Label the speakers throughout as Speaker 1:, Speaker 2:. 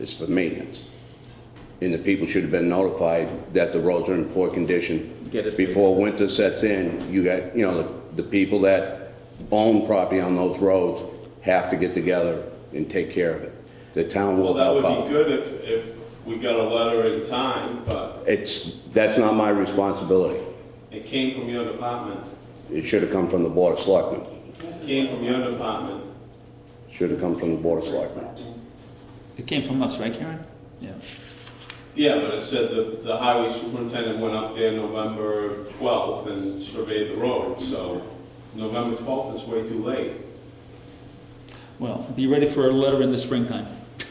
Speaker 1: It's for maintenance. And the people should have been notified that the roads are in poor condition.
Speaker 2: Get it fixed.
Speaker 1: Before winter sets in, you got, you know, the, the people that own property on those roads have to get together and take care of it. The town will
Speaker 3: Well, that
Speaker 1: help
Speaker 3: would be
Speaker 1: out.
Speaker 3: good if, if we got a letter in time, but
Speaker 1: It's, that's not my responsibility.
Speaker 3: it came from your department.
Speaker 1: It should have come from the Board of Selectmen.
Speaker 3: It Came from your department.
Speaker 1: Should have come from the Board of Selectmen.
Speaker 2: It came from us, right, Karen? Yeah.
Speaker 3: Yeah, but it said that the highway superintendent went up there November 12th and surveyed the road, so November 12th is way too late.
Speaker 2: Well, be ready for a letter in the springtime.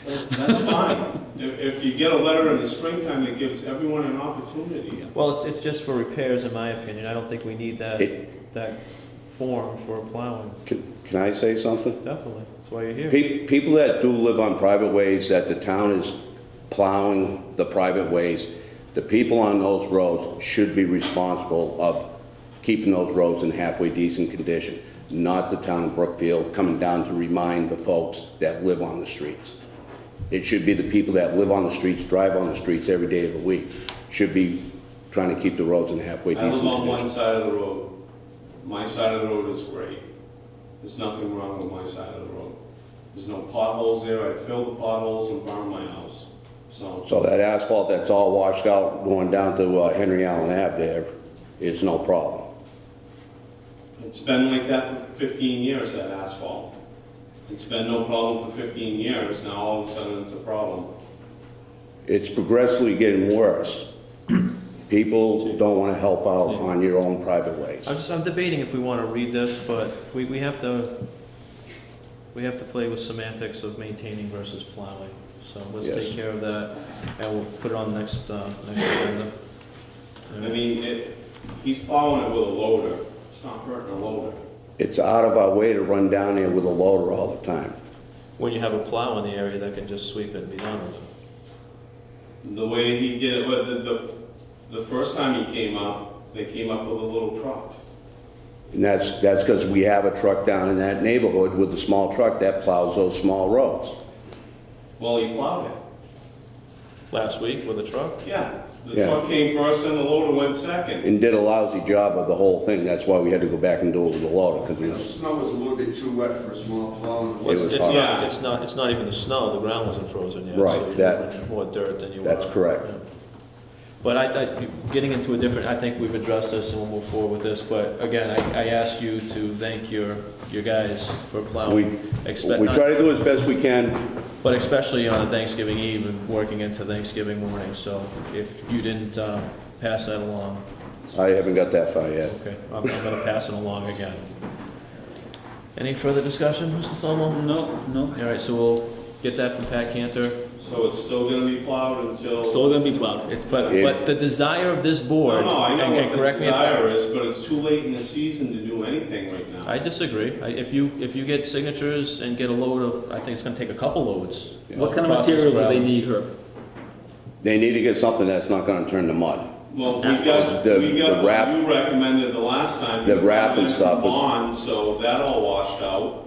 Speaker 3: That's fine. If, if you get a letter in the springtime, it gives everyone an opportunity.
Speaker 4: Well, it's, it's just for repairs, in my opinion. I don't think we need that,
Speaker 1: It-
Speaker 4: that form for plowing,
Speaker 1: Can, can I say something?
Speaker 4: definitely. That's why you're here.
Speaker 1: Pe- People that do live on private ways, that the town is plowing the private ways, the people on those roads should be responsible of keeping those roads in halfway decent condition, not the town of Brookfield coming down to remind the folks that live on the streets. It should be the people that live on the streets, drive on the streets every day of the week, should be trying to keep the roads in halfway
Speaker 3: I
Speaker 1: decent
Speaker 3: live on one
Speaker 1: condition.
Speaker 3: side of the road. My side of the road is great. There's nothing wrong with my side of the road. There's no potholes there. I fill the potholes in front of my house. So,
Speaker 1: So that asphalt that's all washed out going down to uh, Henry Allen Ave there is no problem.
Speaker 3: it's been like that for 15 years, that asphalt. It's been no problem for 15 years. Now all of a sudden it's a problem.
Speaker 1: It's progressively getting worse. People don't want to help out on your own private ways.
Speaker 4: I'm just, I'm debating if we want to read this, but we, we have to, we have to play with semantics of maintaining versus plowing. So let's
Speaker 1: Yes.
Speaker 4: take care of that, and we'll put it on the next, uh, next agenda.
Speaker 3: I mean, it, he's plowing it with a loader. It's not hurting a loader.
Speaker 1: It's out of our way to run down there with a loader all the time.
Speaker 4: When you have a plow in the area, that can just sweep it and be done with it.
Speaker 3: The way he did it, but the, the, the first time he came up, they came up with a little truck.
Speaker 1: And that's, that's because we have a truck down in that neighborhood with the small truck that plows those small roads.
Speaker 3: Well, he plowed it.
Speaker 4: Last week with a truck,
Speaker 3: Yeah, the
Speaker 1: Yeah.
Speaker 3: truck came first and the loader went second.
Speaker 1: And did a lousy job of the whole thing. That's why we had to go back and do it with a loader, because it
Speaker 5: The
Speaker 1: was,
Speaker 5: snow was a little bit too wet for a small plow.
Speaker 1: It was
Speaker 4: it's
Speaker 1: hot.
Speaker 4: not, it's not, it's not even the snow, the ground wasn't frozen yet. so
Speaker 1: Right,
Speaker 4: you're
Speaker 1: that-
Speaker 4: running More dirt than you were.
Speaker 1: That's correct.
Speaker 4: yeah. But I, I, getting into a different, I think we've addressed this and we'll move forward with this, but again, I, I ask you to thank your, your guys for
Speaker 1: we,
Speaker 4: plowing. Expect-
Speaker 1: we try to do as best we can.
Speaker 4: But especially on Thanksgiving Eve and working into Thanksgiving morning, so if you didn't, uh, pass that along,
Speaker 1: I haven't got that far yet.
Speaker 4: okay, I'm, I'm gonna pass it along again. Any further discussion, Mr. Thomo?
Speaker 2: No, no.
Speaker 4: All right, so we'll get that from Pat Cantor.
Speaker 3: So it's still gonna be plowed until.
Speaker 2: Still gonna be plowed.
Speaker 4: It- But,
Speaker 1: Yeah.
Speaker 4: but the desire of this board.
Speaker 3: No, no, I know
Speaker 4: and- and
Speaker 3: what the
Speaker 4: correct me if I-
Speaker 3: desire is, but it's too late in the season to do anything right now.
Speaker 4: I disagree. I- If you, if you get signatures and get a load of, I think it's gonna take a couple loads.
Speaker 2: What kind of
Speaker 4: Process
Speaker 2: material do they
Speaker 4: gravel.
Speaker 2: need, Herb?
Speaker 1: They need to get something that's not gonna turn to mud.
Speaker 3: Well, we
Speaker 2: That's
Speaker 3: got,
Speaker 1: the-
Speaker 3: we
Speaker 1: the
Speaker 3: got
Speaker 1: wrap-
Speaker 3: what you recommended the last time.
Speaker 1: The
Speaker 3: You
Speaker 1: wrap and
Speaker 3: recommended
Speaker 1: stuff was-
Speaker 3: Bond, so that all washed out.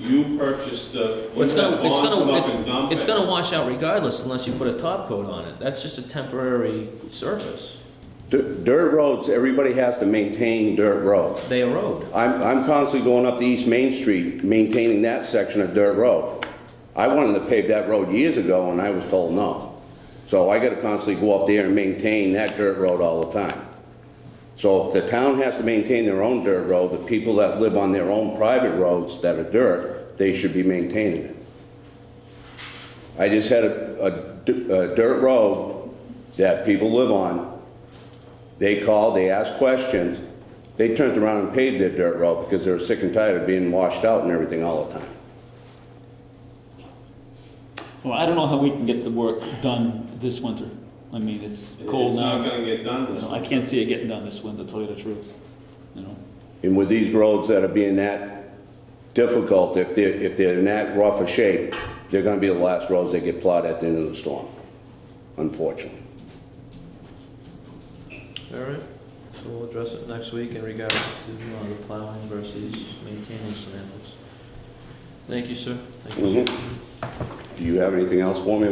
Speaker 3: You purchased the,
Speaker 4: Well,
Speaker 3: you
Speaker 4: It's
Speaker 3: had
Speaker 4: gonna, it's
Speaker 3: Bond come up and
Speaker 4: gonna,
Speaker 3: dump
Speaker 4: it's, it's
Speaker 3: it.
Speaker 4: gonna wash out regardless unless you put a top coat on it. That's just a temporary surface.
Speaker 1: D- Dirt roads, everybody has to maintain dirt roads.
Speaker 4: They erode.
Speaker 1: I'm, I'm constantly going up to East Main Street, maintaining that section of dirt road. I wanted to pave that road years ago, and I was told no. So I gotta constantly go up there and maintain that dirt road all the time. So if the town has to maintain their own dirt road, the people that live on their own private roads that are dirt, they should be maintaining it. I just had a, a d- a dirt road that people live on, they called, they asked questions, they turned around and paved their dirt road because they were sick and tired of being washed out and everything all the time.
Speaker 2: Well, I don't know how we can get the work done this winter. I mean, it's cold
Speaker 3: It's not
Speaker 2: now.
Speaker 3: gonna get done this
Speaker 2: You know, I can't see it getting done this winter, to tell you the truth, you know?
Speaker 1: And with these roads that are being that difficult, if they're, if they're in that rough a shape, they're gonna be the last roads that get plowed at the end of the storm, unfortunately.
Speaker 4: All right, so we'll address it next week in regards to uh, the plowing
Speaker 1: Mm-hmm.
Speaker 4: versus maintaining semantics. Thank you, sir. Thank you, sir.
Speaker 1: Do you have anything else for me?